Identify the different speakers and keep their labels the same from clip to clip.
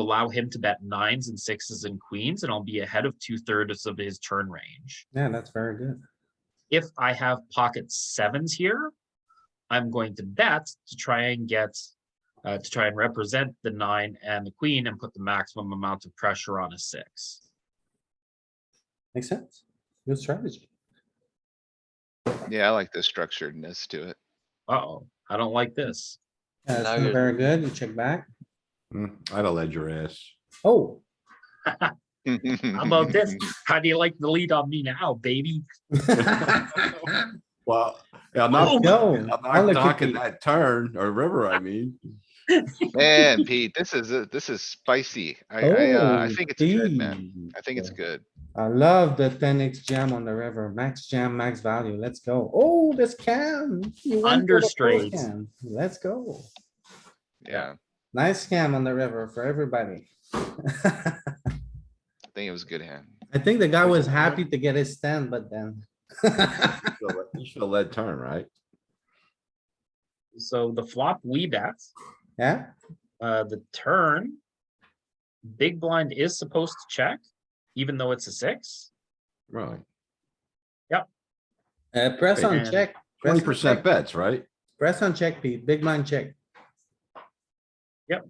Speaker 1: allow him to bet nines and sixes and queens, and I'll be ahead of two thirds of his turn range.
Speaker 2: Yeah, that's very good.
Speaker 1: If I have pocket sevens here, I'm going to bet to try and get, uh, to try and represent the nine and the queen and put the maximum amount of pressure on a six.
Speaker 2: Makes sense. Good strategy.
Speaker 3: Yeah, I like the structuredness to it.
Speaker 1: Uh-oh, I don't like this.
Speaker 2: Yeah,
Speaker 4: Now
Speaker 2: it's not
Speaker 4: you're-
Speaker 2: very good. You check back.
Speaker 5: Mm, I'd have led your ass.
Speaker 2: Oh,
Speaker 1: How about this? How do you like the lead on me now, baby?
Speaker 5: Well, I'm
Speaker 1: Oh,
Speaker 5: not,
Speaker 2: no.
Speaker 5: I'm
Speaker 2: I'll
Speaker 5: not
Speaker 2: look at
Speaker 5: knocking
Speaker 2: you.
Speaker 5: that turn or river, I mean.
Speaker 3: Man, Pete, this is, a- this is spicy. I, I, uh, I
Speaker 2: Oh,
Speaker 3: think it's good, man.
Speaker 2: gee.
Speaker 3: I think it's good.
Speaker 2: I love the ten X jam on the river. Max jam, max value. Let's go. Oh, this can. You went for the full
Speaker 1: Understraight.
Speaker 2: cam. Let's go.
Speaker 3: Yeah,
Speaker 2: Nice scam on the river for everybody.
Speaker 3: I think it was a good hand.
Speaker 2: I think the guy was happy to get his stand, but then.
Speaker 5: You should have led turn, right?
Speaker 1: So the flop we bet,
Speaker 2: Yeah,
Speaker 1: uh, the turn. Big blind is supposed to check, even though it's a six.
Speaker 5: Right.
Speaker 2: uh, press on
Speaker 1: And
Speaker 2: check. press on
Speaker 5: Twenty percent
Speaker 2: check,
Speaker 5: bets, right?
Speaker 2: Press on check, Pete. Big blind check.
Speaker 1: Yep.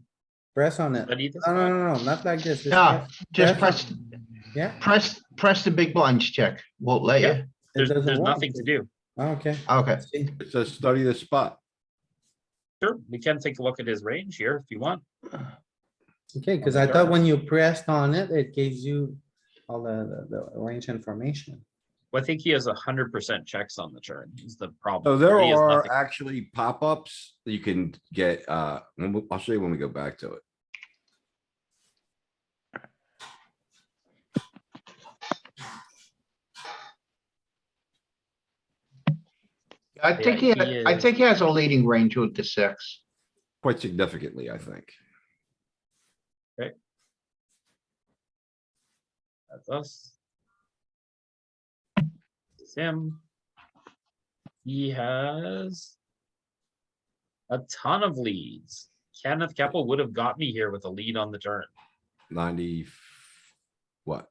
Speaker 2: Press on it.
Speaker 1: But he does
Speaker 2: No, no,
Speaker 1: not.
Speaker 2: no, no, not like this. It's-
Speaker 6: Yeah, just
Speaker 2: press
Speaker 6: press,
Speaker 2: Yeah,
Speaker 6: press, press the big blinds check. Won't let
Speaker 1: Yeah.
Speaker 6: you.
Speaker 2: it
Speaker 1: There's,
Speaker 2: doesn't
Speaker 1: there's
Speaker 2: work. Oh,
Speaker 1: nothing to do.
Speaker 2: Okay.
Speaker 6: Okay.
Speaker 2: See,
Speaker 5: It says study the spot.
Speaker 1: Sure, we can take a look at his range here if you want.
Speaker 2: Okay, because I thought when you pressed on it, it gives you all the, the, the range information.
Speaker 1: Well, I think he has a hundred percent checks on the turn is the problem.
Speaker 5: So there
Speaker 1: He has
Speaker 5: are
Speaker 1: nothing.
Speaker 5: actually pop-ups that you can get, uh, when we- I'll show you when we go back to it.
Speaker 6: I think he,
Speaker 1: he
Speaker 6: I
Speaker 1: is-
Speaker 6: think he has a leading range with the six.
Speaker 5: Quite significantly, I think.
Speaker 1: That's us. It's him. He has. A ton of leads. Kenneth Keppel would have got me here with a lead on the turn.
Speaker 5: Ninety. f- What?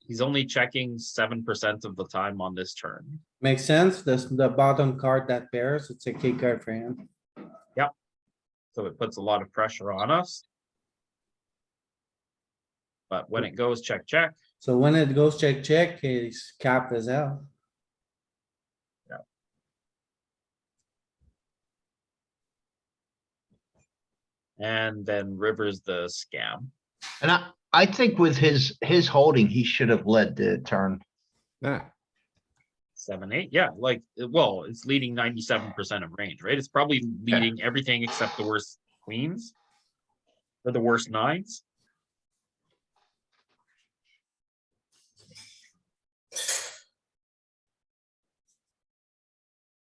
Speaker 1: He's only checking seven percent of the time on this turn.
Speaker 2: Makes sense. This, the bottom card that pairs, it's a key card for him.
Speaker 1: So it puts a lot of pressure on us. But when it goes check, check,
Speaker 2: So when it goes check, check, his cap is out.
Speaker 1: and then rivers the scam.
Speaker 6: And I, I think with his, his holding, he should have led the turn.
Speaker 5: Nah,
Speaker 1: Seven, eight, yeah, like, uh, well, it's leading ninety-seven percent of range, right? It's probably leading everything except the worst queens. Or the worst nines.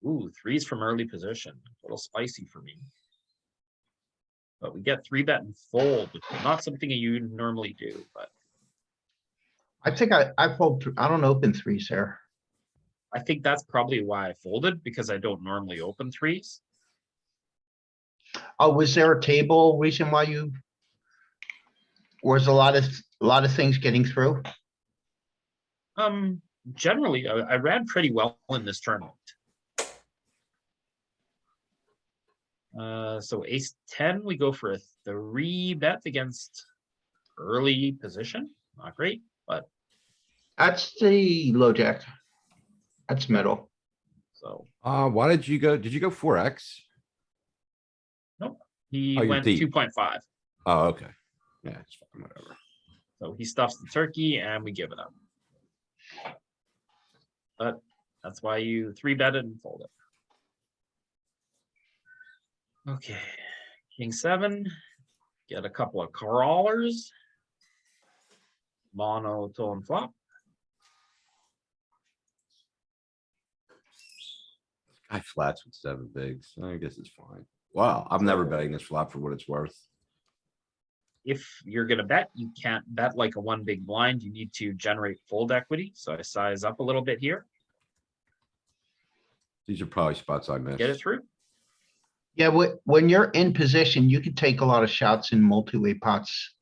Speaker 1: Ooh, threes from early position, a little spicy for me. But we get three bet and fold, which is not something you normally do, but
Speaker 6: I think I, I fold, th- I don't open threes here.
Speaker 1: I think that's probably why I folded, because I don't normally open threes.
Speaker 6: Oh, was there a table reason why you? Was a lot of, a lot of things getting through?
Speaker 1: Um, generally, I, I ran pretty well in this tournament. Uh, so ace ten, we go for a three bet against early position. Not great.
Speaker 6: That's the low jack. That's middle.
Speaker 1: So
Speaker 5: uh, why did you go, did you go four X?
Speaker 1: he
Speaker 5: Oh, you're
Speaker 1: went
Speaker 5: deep.
Speaker 1: two point five.
Speaker 5: Oh, okay. Yeah, it's fine, whatever.
Speaker 1: So he stuffs the turkey and we give it up. But that's why you three bet it and fold it. Okay, king seven, get a couple of crawlers. Monotone flop,
Speaker 5: I flats with seven bigs. I guess it's fine. Wow, I'm never betting this flop for what it's worth.
Speaker 1: if you're gonna bet, you can't bet like a one big blind, you need to generate fold equity, so I size up a little bit here,
Speaker 5: These are probably spots I
Speaker 1: get it
Speaker 5: missed.
Speaker 1: through.
Speaker 6: Yeah, when, when you're in position, you can take a lot of shots in multi-way pots.